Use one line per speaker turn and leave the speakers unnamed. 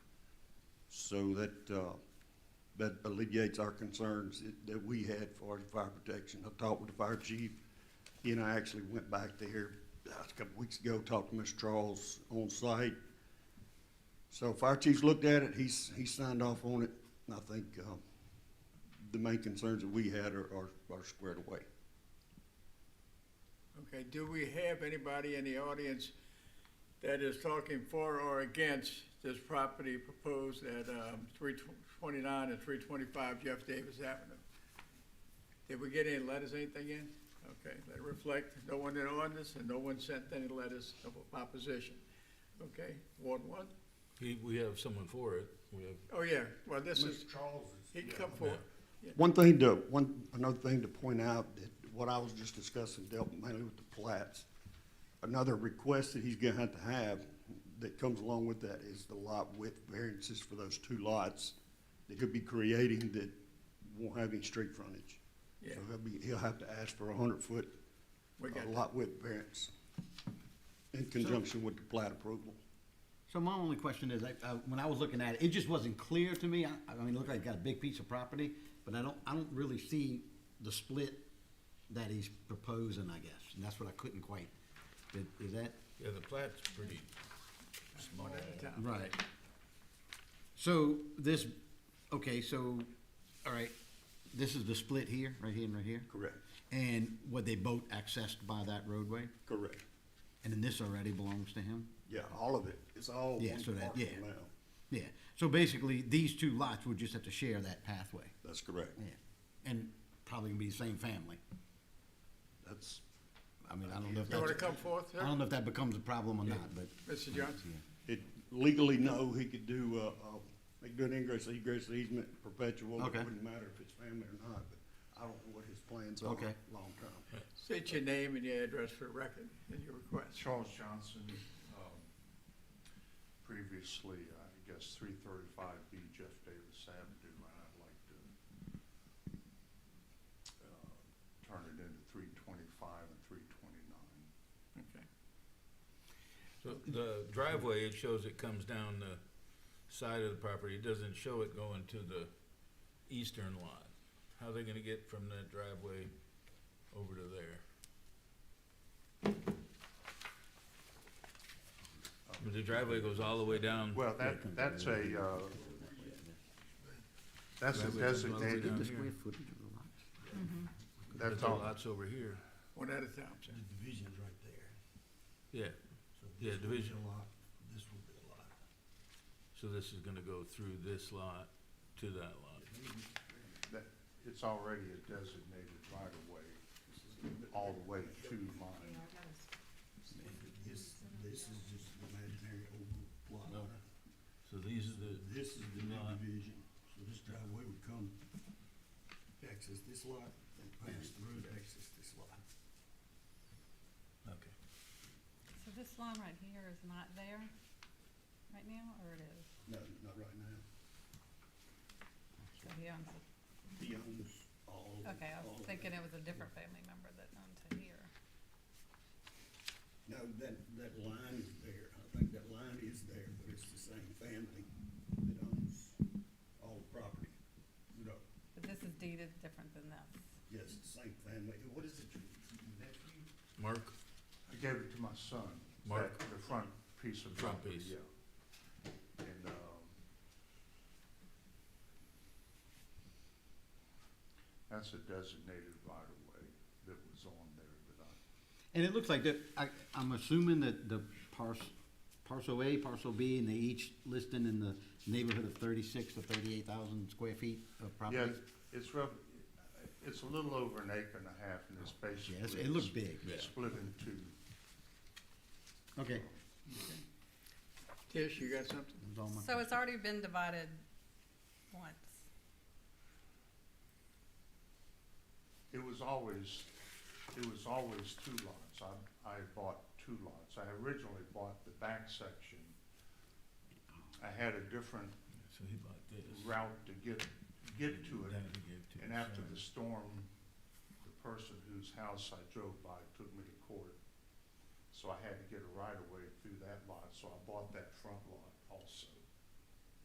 So that, uh, that alleviates our concerns that- that we had for the fire protection. I talked with the fire chief, he and I actually went back there uh, a couple weeks ago, talked to Mr. Charles on site. So fire chief's looked at it, he's, he signed off on it, and I think, um, the main concerns that we had are, are, are squared away.
Okay, do we have anybody in the audience that is talking for or against this property proposed at um, three twenty-nine and three twenty-five Jeff Davis Avenue? Did we get any letters, anything in? Okay, let it reflect, no one in on this, and no one sent any letters of opposition. Okay, Ward one?
He, we have someone for it, we have,
Oh, yeah, well, this is,
Charles
he come forward.
One thing to, one, another thing to point out, that what I was just discussing dealt mainly with the plats. Another request that he's gonna have to have that comes along with that is the lot width variances for those two lots that he'll be creating that won't have any street frontage.
Yeah.
So he'll be, he'll have to ask for a hundred foot
We
uh,
got that.
lot width variance in conjunction with the plat approval.
So my only question is, I, uh, when I was looking at it, it just wasn't clear to me. I, I mean, it looked like it got a big piece of property, but I don't, I don't really see the split that he's proposing, I guess, and that's what I couldn't quite, is, is that?
yeah, the plat's pretty small.
One at a time.
Right. So this, okay, so, all right, this is the split here, right here and right here?
Correct.
And were they both accessed by that roadway?
Correct.
And then this already belongs to him?
Yeah, all of it. It's all
Yeah,
one
so that-
parcel
yeah.
now.
Yeah, so basically, these two lots would just have to share that pathway.
That's correct.
Yeah, and probably gonna be the same family.
That's,
I mean, I don't know if
You wanna
that's,
come forth, sir?
I don't know if that becomes a problem or not, but.
Mr. Johnson?
It legally, no, he could do, uh, uh, he could do an ingress, egress easement perpetual, it
Okay.
wouldn't matter if it's family or not, but I don't know what his plans are
Okay.
long term.
State your name and your address for the record and your request.
Charles Johnson, um, previously, I guess, three thirty-five B Jeff Davis Avenue, and I'd like to uh, turn it into three twenty-five and three twenty-nine.
Okay.
So the driveway, it shows it comes down the side of the property, it doesn't show it going to the eastern lot. How are they gonna get from that driveway over to there? I mean, The driveway goes all the way down,
Well, that, that's a, uh, that's a
Driveway goes all the way down
designated,
here.
footage of the lots.
but
that's
the
all,
lot's over here,
One at a time, sir.
Division's right there.
yeah,
So
Yeah,
this will be
division.
a lot, This will be a lot.
so this is gonna go through this lot to that lot.
that, it's already a designated right-of-way, all the way to mine.
This, this is just an imaginary oval plot.
No. So these are the,
This is the new
Lot.
division, so this driveway would come, access this lot, and pass through to access this lot.
okay.
So this line right here is not there right now, or it is?
No, not right now.
So he owns it.
He owns all of it.
Okay, I
all
was
of
thinking
it.
it was a different family member that owned to here.
No, that, that line is there, I think that line is there, but it's the same family that owns all the property. No,
But this is deeded different than this.
yes, the same family, what is it, your nephew?
Mark?
I gave it to my son.
Mark.
that- The front piece of
Front
property,
piece.
yeah. And, um, that's a designated right of way that was on there, but I,
And it looks like that, I, I'm assuming that the parcel, parcel A, parcel B, and they each listed in the neighborhood of thirty-six to thirty-eight thousand square feet of
yeah,
property?
it's rough, it's a little over an acre and a half and it's basically.
Yes, it looks big,
Yeah.
Split in two.
okay.
Tish, you got something?
that was all my-
So it's already been divided once.
It was always, it was always two lots. I, I bought two lots. I originally bought the back section. I had a different
So he bought this.
route to get, get to
Then
it.
he gave to
And
his
after
son.
the storm, the person whose house I drove by took me to court. So I had to get a right of way through that lot, so I bought that front lot also.